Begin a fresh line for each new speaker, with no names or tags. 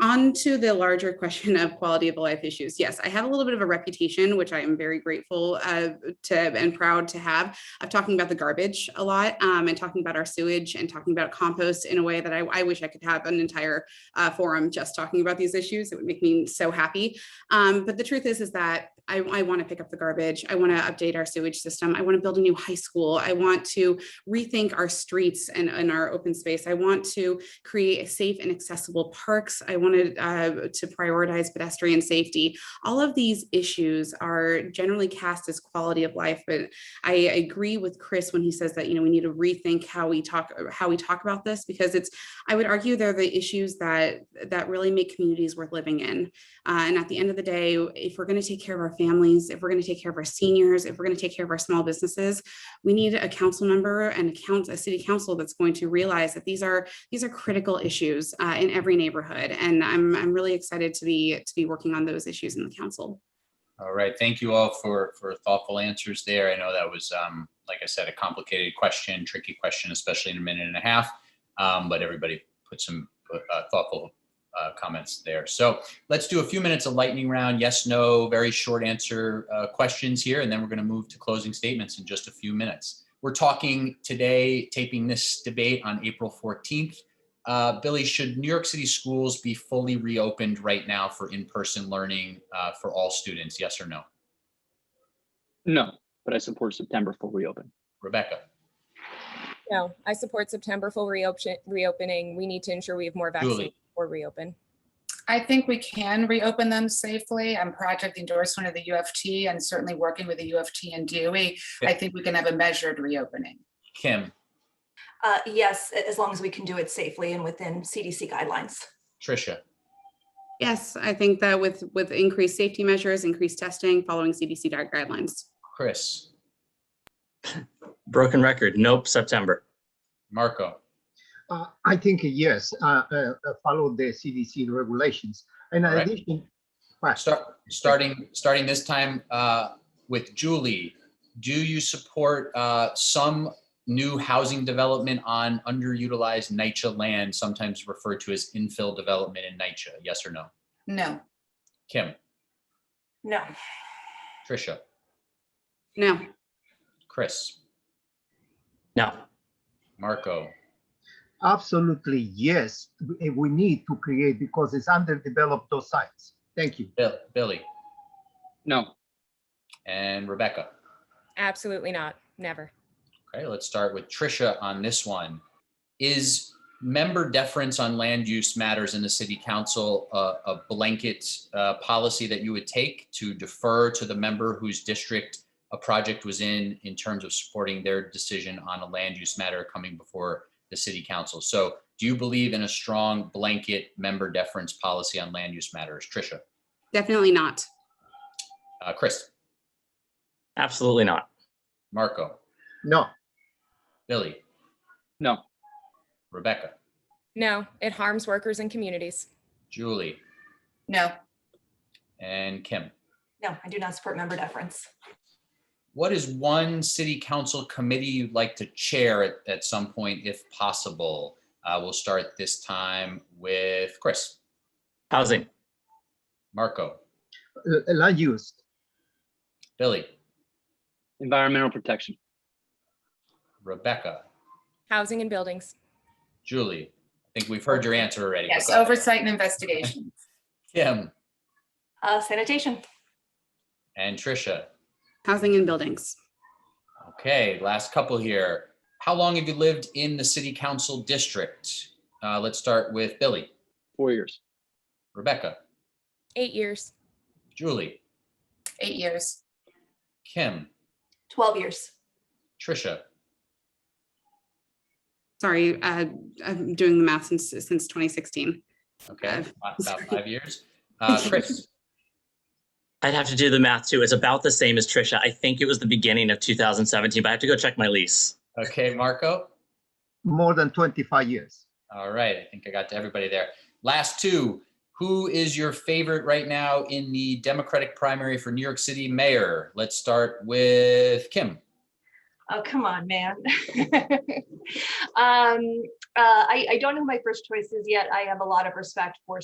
On to the larger question of quality of life issues. Yes, I have a little bit of a reputation, which I am very grateful uh, to and proud to have, of talking about the garbage a lot um, and talking about our sewage and talking about compost in a way that I, I wish I could have an entire uh, forum just talking about these issues. It would make me so happy. Um, but the truth is, is that I, I want to pick up the garbage. I want to update our sewage system. I want to build a new high school. I want to rethink our streets and, and our open space. I want to create safe and accessible parks. I wanted uh, to prioritize pedestrian safety. All of these issues are generally cast as quality of life, but I agree with Chris when he says that you know we need to rethink how we talk how we talk about this because it's I would argue they're the issues that that really make communities worth living in. Uh, and at the end of the day, if we're going to take care of our families, if we're going to take care of our seniors, if we're going to take care of our small businesses, we need a council member and a count a city council that's going to realize that these are these are critical issues uh, in every neighborhood. And I'm I'm really excited to be to be working on those issues in the council.
All right, thank you all for, for thoughtful answers there. I know that was, um, like I said, a complicated question, tricky question, especially in a minute and a half. Um, but everybody put some uh, thoughtful uh, comments there. So let's do a few minutes of lightning round, yes, no, very short answer uh, questions here, and then we're going to move to closing statements in just a few minutes. We're talking today, taping this debate on April 14th. Uh, Billy, should New York City schools be fully reopened right now for in-person learning uh, for all students? Yes or no?
No, but I support September full reopen.
Rebecca,
No, I support September full reopen, reopening. We need to ensure we have more vaccines
Julie.
before reopen.
I think we can reopen them safely. I'm proud to have the endorsement of the UFT and certainly working with the UFT and DOE. I
Yeah.
think we can have a measured reopening.
Kim,
Uh, yes, a- as long as we can do it safely and within CDC guidelines.
Tricia,
Yes, I think that with with increased safety measures, increased testing, following CDC guidelines.
Chris,
Broken record. Nope, September.
Marco,
Uh, I think yes, uh, uh, uh, follow the CDC regulations. And in
All right.
addition, well,
start, starting, starting this time uh, with Julie. Do you support uh, some new housing development on underutilized NYCHA land, sometimes referred to as infill development in NYCHA? Yes or no?
No,
Kim,
No,
Tricia,
No,
Chris,
No,
Marco,
absolutely yes, we we need to create because it's underdeveloped those sites. Thank you.
Bill, Billy,
No,
and Rebecca.
Absolutely not. Never.
Okay, let's start with Tricia on this one. Is member deference on land use matters in the city council a, a blanket uh, policy that you would take to defer to the member whose district a project was in, in terms of supporting their decision on a land use matter coming before the city council? So do you believe in a strong blanket member deference policy on land use matters? Tricia,
definitely not.
uh, Chris,
absolutely not.
Marco,
No,
Billy,
no,
Rebecca,
No, it harms workers and communities.
Julie,
no,
and Kim.
no, I do not support member deference.
What is one city council committee you'd like to chair at, at some point if possible? Uh, we'll start this time with Chris,
Housing.
Marco,
uh, land use,
Billy,
environmental protection.
Rebecca,
Housing and buildings.
Julie. I think we've heard your answer already. but
yes,
go ahead.
oversight and investigation.
Kim
Uh, sanitation,
and Tricia.
Housing and buildings.
Okay, last couple here. How long have you lived in the city council district? Uh, let's start with Billy,
Four years.
Rebecca,
Eight years.
Julie,
Eight years,
Kim,
12 years.
Tricia,
Sorry, uh, I'm doing the math since since 2016.
okay, about five years. Uh, Chris,
I'd have to do the math too. It's about the same as Trisha. I think it was the beginning of 2017, but I have to go check my lease.
okay, Marco?
more than 25 years.
All right, I think I got to everybody there. Last two, who is your favorite right now in the Democratic primary for New York City mayor? Let's start with Kim.
Oh, come on, man. um, uh, I, I don't know who my first choice is yet. I have a lot of respect for